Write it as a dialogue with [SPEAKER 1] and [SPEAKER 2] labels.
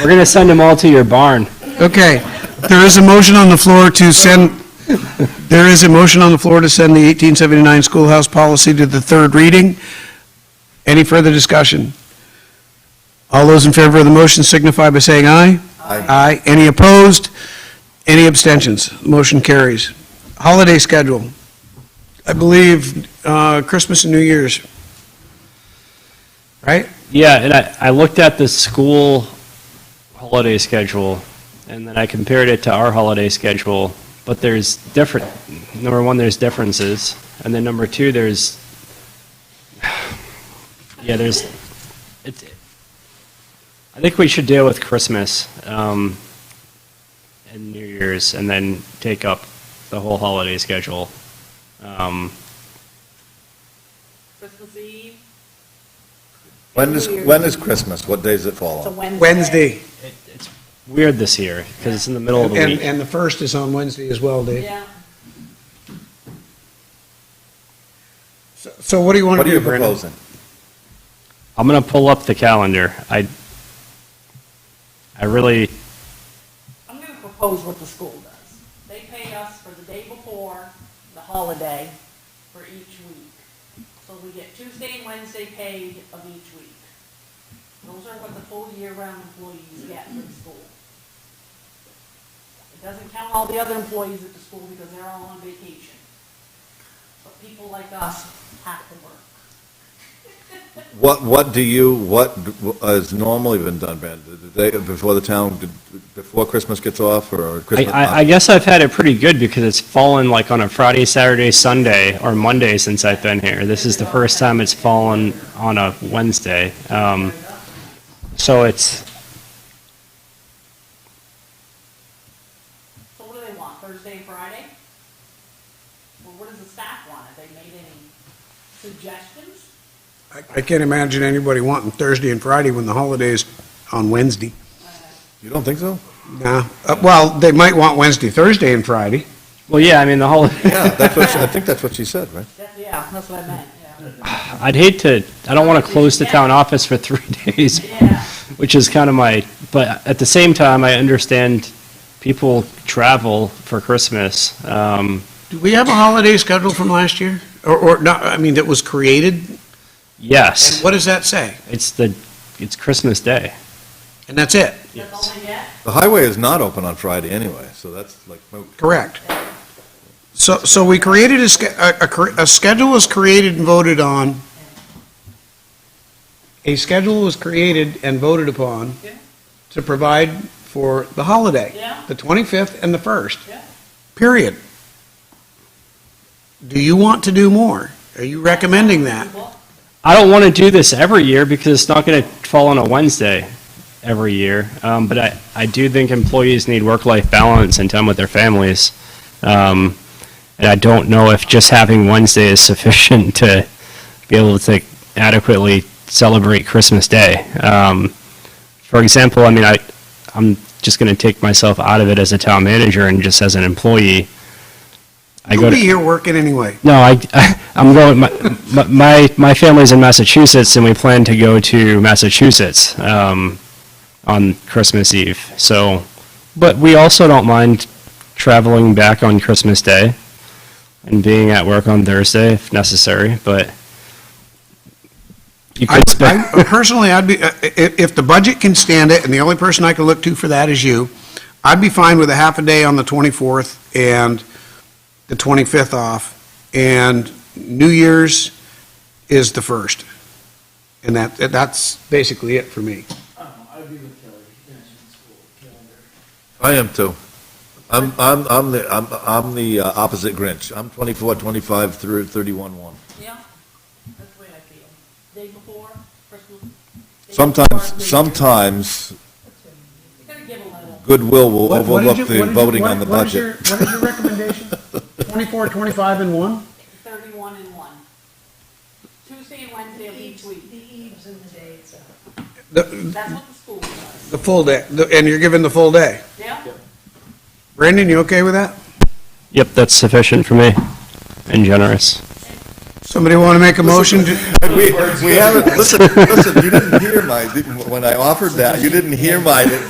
[SPEAKER 1] We're gonna send them all to your barn.
[SPEAKER 2] Okay, there is a motion on the floor to send, there is a motion on the floor to send the 1879 schoolhouse policy to the third reading. Any further discussion? All those in favor of the motion signify by saying aye. Aye.
[SPEAKER 3] Uh,
[SPEAKER 2] Aye. Any opposed? Any abstentions? Motion carries. Holiday schedule. I believe uh, Christmas and New Year's. Right?
[SPEAKER 1] Yeah, and I, I looked at the school holiday schedule, and then I compared it to our holiday schedule, but there's different, number one, there's differences, and then number two, there's, yeah, there's, it, I think we should deal with Christmas, um, and New Year's, and then take up the whole holiday schedule. Um,
[SPEAKER 3] Christmas Eve,
[SPEAKER 4] When is, when is Christmas? What day does it fall
[SPEAKER 3] it's a
[SPEAKER 4] on?
[SPEAKER 3] Wednesday.
[SPEAKER 2] Wednesday.
[SPEAKER 1] it, it's weird this year, because it's in the middle of the
[SPEAKER 2] And,
[SPEAKER 1] week.
[SPEAKER 2] and the first is on Wednesday as well, Dave.
[SPEAKER 3] Yeah,
[SPEAKER 2] So what do you want to
[SPEAKER 4] What are
[SPEAKER 2] do,
[SPEAKER 4] you
[SPEAKER 2] Brendan?
[SPEAKER 4] proposing?
[SPEAKER 1] I'm gonna pull up the calendar. I, I really,
[SPEAKER 3] I'm gonna propose what the school does. They pay us for the day before the holiday for each week. So we get Tuesday and Wednesday paid of each week. Those are what the full year-round employees get from the school. It doesn't count all the other employees at the school because they're all on vacation. But people like us have to work.
[SPEAKER 4] What, what do you, what has normally been done, Brandon? The day before the town, before Christmas gets off or
[SPEAKER 1] I,
[SPEAKER 4] Christmas?
[SPEAKER 1] I, I guess I've had it pretty good because it's fallen like on a Friday, Saturday, Sunday, or Monday since I've been here. This is the first time it's fallen on a Wednesday. Um, so it's,
[SPEAKER 3] So what do they want, Thursday and Friday? Well, what does the staff want? Have they made any suggestions?
[SPEAKER 2] I I can't imagine anybody wanting Thursday and Friday when the holiday's on Wednesday.
[SPEAKER 4] You don't think so?
[SPEAKER 2] Nah, Uh, well, they might want Wednesday, Thursday, and Friday.
[SPEAKER 1] well, yeah, I mean, the whole,
[SPEAKER 4] Yeah, that's what, she- I think that's what she said, right?
[SPEAKER 3] That's, yeah, that's what I meant, yeah.
[SPEAKER 1] I'd hate to, I don't want to close the town office for three days,
[SPEAKER 3] Yeah,
[SPEAKER 1] which is kind of my, but at the same time, I understand people travel for Christmas. Um,
[SPEAKER 2] Do we have a holiday schedule from last year? Or, or, not, I mean, that was created?
[SPEAKER 1] yes,
[SPEAKER 2] What does that say?
[SPEAKER 1] it's the, it's Christmas Day.
[SPEAKER 2] And that's it?
[SPEAKER 3] that's all they get?
[SPEAKER 4] The highway is not open on Friday anyway, so that's like, moot.
[SPEAKER 2] Correct. So, so we created a, sch- a, a cre- a schedule was created and voted on. A schedule was created and voted upon
[SPEAKER 3] Yeah.
[SPEAKER 2] to provide for the holiday.
[SPEAKER 3] Yeah.
[SPEAKER 2] The 25th and the 1st.
[SPEAKER 3] Yeah.
[SPEAKER 2] Period. Do you want to do more? Are you recommending that?
[SPEAKER 3] People,
[SPEAKER 1] I don't want to do this every year because it's not going to fall on a Wednesday every year. Um, but I, I do think employees need work life balance and time with their families. Um, and I don't know if just having Wednesday is sufficient to be able to adequately celebrate Christmas Day. Um, for example, I mean, I, I'm just going to take myself out of it as a town manager and just as an employee. I go
[SPEAKER 2] You'll
[SPEAKER 1] to-
[SPEAKER 2] be here working anyway.
[SPEAKER 1] no, I, I I'm going. My, my my family's in Massachusetts, and we plan to go to Massachusetts um, on Christmas Eve. So, but we also don't mind traveling back on Christmas Day and being at work on Thursday if necessary. But you
[SPEAKER 2] I,
[SPEAKER 1] could spend.
[SPEAKER 2] I- personally, I'd be, if, if the budget can stand it, and the only person I can look to for that is you, I'd be fine with a half a day on the 24th and the 25th off, and New Year's is the 1st. And that, that's basically it for me.
[SPEAKER 5] I agree with Kelly, finishing school calendar.
[SPEAKER 4] I am too. I'm, I'm, I'm the, I'm, I'm the uh, opposite Grinch. I'm 24, 25 through 31, 1.
[SPEAKER 3] Yeah, that's the way I feel. Day before, Christmas. day before,
[SPEAKER 4] Sometimes,
[SPEAKER 3] they-
[SPEAKER 4] sometimes
[SPEAKER 3] They're gonna give a little.
[SPEAKER 4] goodwill will overlook the voting on the budget.
[SPEAKER 2] What is your recommendation? 24, 25, and 1?
[SPEAKER 3] Thirty-one and one. Tuesday and Wednesday of each week.
[SPEAKER 6] eves and the uh, days.
[SPEAKER 2] The,
[SPEAKER 3] That's what the school does,
[SPEAKER 2] the full day, the- and you're given the full day.
[SPEAKER 3] yeah?
[SPEAKER 2] Brandon, you okay with that?
[SPEAKER 1] Yep, that's sufficient for me and generous.
[SPEAKER 2] Somebody want to make a motion? to-
[SPEAKER 4] We, we haven't, listen, listen, you didn't hear my, when I offered that, you didn't hear my